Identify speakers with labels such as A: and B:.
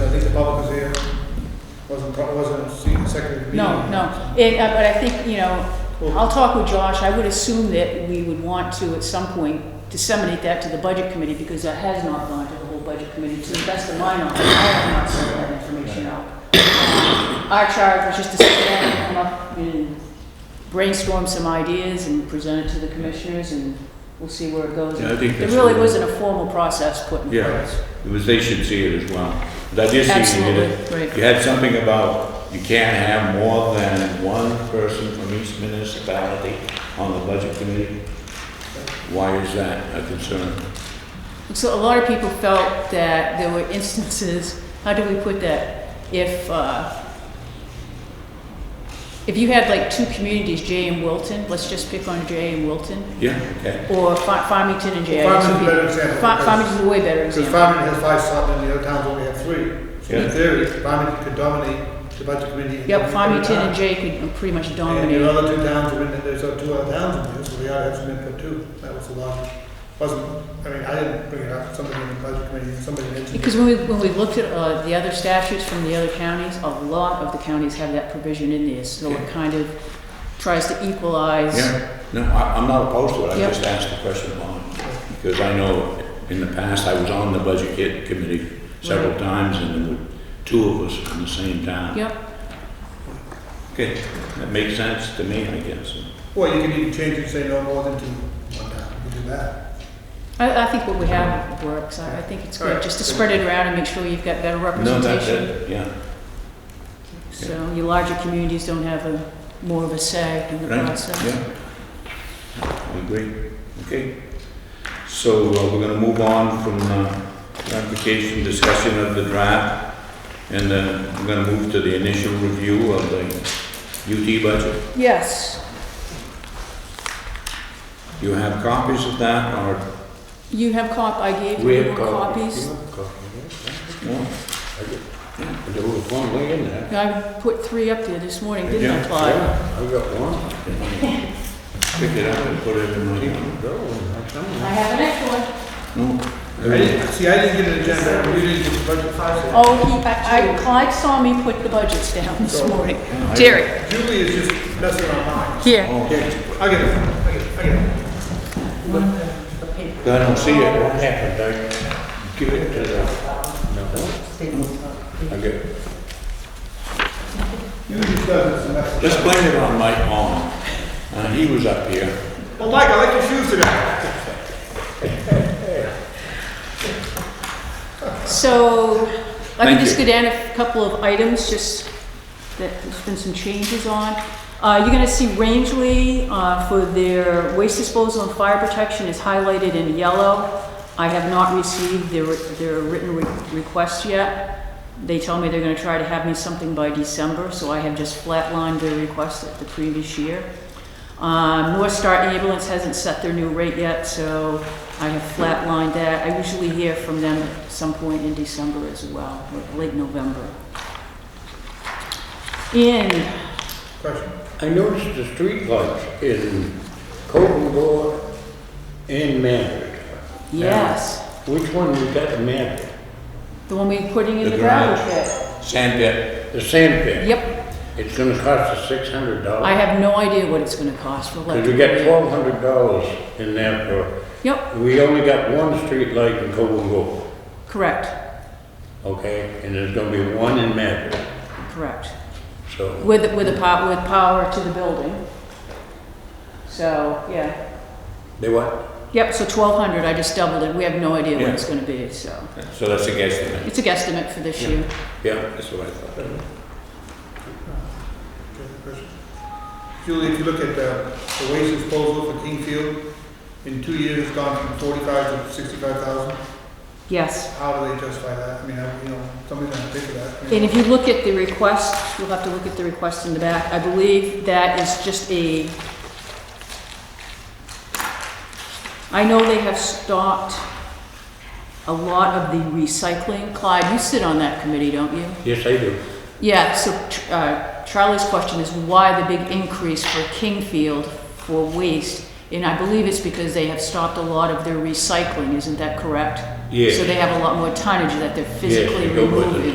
A: meeting.
B: No, no, it, uh, but I think, you know, I'll talk with Josh, I would assume that we would want to at some point disseminate that to the budget committee, because that has not gone to the whole budget committee, to the best of my knowledge, I have not sent that information out. Our charge was just to sit down and come up and brainstorm some ideas and present it to the commissioners, and we'll see where it goes.
A: Yeah, I think that's
B: There really
A: really-
B: wasn't a formal process put in place.
A: Yeah, it was, they should see it as well. But I did see you did it.
B: Absolutely, right.
A: You had something about you can't have more than one person from each municipality on the budget committee. Why is that a concern?
B: So a lot of people felt that there were instances, how do we put that? If, uh, if you had like two communities, Jay and Wilton, let's just pick on Jay and Wilton,
A: Yeah, okay.
B: or Fa- Farmington and Jay. I guess would be-
C: Farmington's a better example,
B: Fa-
C: because-
B: Farmington's a way better
C: Because
B: example.
C: Farmington has five selectmen, and the other towns only have three. So
A: Yeah.
C: in theory, Farmington could dominate the budget committee. and
B: Yep,
C: dominate the
B: Farmington and
C: town.
B: Jay could pretty much
C: And the
B: dominate.
C: other two towns are in, there, there's uh, two other towns in there, so we ought to have some input too. That was the logic. Wasn't, I mean, I didn't bring it up, somebody in the budget committee, somebody mentioned it.
B: Because when we, when we looked at uh, the other statutes from the other counties, a lot of the counties have that provision in there, so it kind of tries to equalize.
A: Yeah, no, I, I'm not opposed to it, I
B: Yep.
A: just asked the question on it. Because I know in the past, I was on the budget kit committee several
B: Right.
A: times and there were two of us in the same town.
B: Yep.
A: Okay, that makes sense to me, I guess.
C: Well, you can even change it, say no more than two, one town, you can do that.
B: I, I think what we have works. I, I think it's good,
C: Alright.
B: just to spread it around and make sure you've got better
A: No, that's
B: representation.
A: it, yeah.
B: So your larger communities don't have a, more of a say in the
A: Right,
B: process.
A: Yeah. I agree, okay. So uh, we're gonna move on from uh, ratification, discussion of the draft, and then we're gonna move to the initial review of the UT budget.
B: Yes,
A: Do you have copies of that, or?
B: you have cop, I gave you more copies.
A: no?
D: I do, there's one way in there.
B: I put three up there this morning, didn't I,
A: Yeah,
B: Clyde?
D: I got one.
A: Pick it up and put it in my,
D: Go, I'm telling you.
B: I have an extra one.
A: no?
C: I didn't, see, I didn't get an agenda, you didn't get the budget files.
B: Oh, he, I, I- Clyde saw me put the budgets down this morning.
A: Oh. I-
B: Jerry,
C: Julie is just messing around mine.
B: here.
A: Oh,
C: I get it, I get it, I get it.
A: I don't see
D: Yeah,
A: it.
D: what happened, I give it to the, no,
A: I get,
C: You just does this mess.
A: let's blame it on Mike Long. Uh, he was up here.
C: Well, Mike, I like your shoes today.
B: So I
A: Thank
B: can just
A: you.
B: go down a couple of items, just that there's been some changes on. Uh, You're going to see Rangeley uh, for their waste disposal and fire protection is highlighted in yellow. I have not received their, their written re- request yet. They tell me they're going to try to have me something by December, so I have just flatlined their request at the previous year. Um, North Star Ambulance hasn't set their new rate yet, so I have flatlined that. I usually hear from them at some point in December as well, or late November. In
C: Question.
D: I noticed the streetlights in Colton Gore and Maverick.
B: Yes,
D: Which one we got in Maverick?
B: the one we're putting in
A: The
B: the gravel
A: garage.
B: pit.
A: Sand pit.
D: The sand pit?
B: Yep,
D: It's gonna cost us six
B: I
D: hundred dollars.
B: have no idea what it's gonna cost for
D: Cause
B: electric.
D: we got twelve hundred dollars in there for,
B: Yep,
D: we only got one streetlight in Colton Gore,
B: correct,
D: okay? And there's gonna be one in Maverick,
B: correct.
D: so.
B: With, with a pow, with power to the building. So, yeah,
D: They what?
B: yep, so twelve hundred, I just doubled it, we have no idea what
A: Yeah.
B: it's gonna be, so.
A: So that's a guesstimate.
B: It's a guesstimate for this year.
A: Yeah, that's what I thought.
C: Julie, if you look at uh, the waste disposal for Kingfield, in two years, it's gone from forty-five to sixty-five thousand.
B: Yes,
C: How do they justify that? I mean, I- you know, somebody's gonna pay for that. I mean,
B: and if you look at the request, you'll have to look at the request in the back, I believe that is just a. I know they have stopped a lot of the recycling, Clyde, you sit on that committee, don't you?
D: Yes, I do.
B: Yeah, so uh, Charlie's question is why the big increase for Kingfield for waste? And I believe it's because they have stopped a lot of their recycling, isn't that correct?
D: Yes.
B: So they have a lot more tonnage that they're
D: Yes,
B: physically
D: they go with it.
B: removing.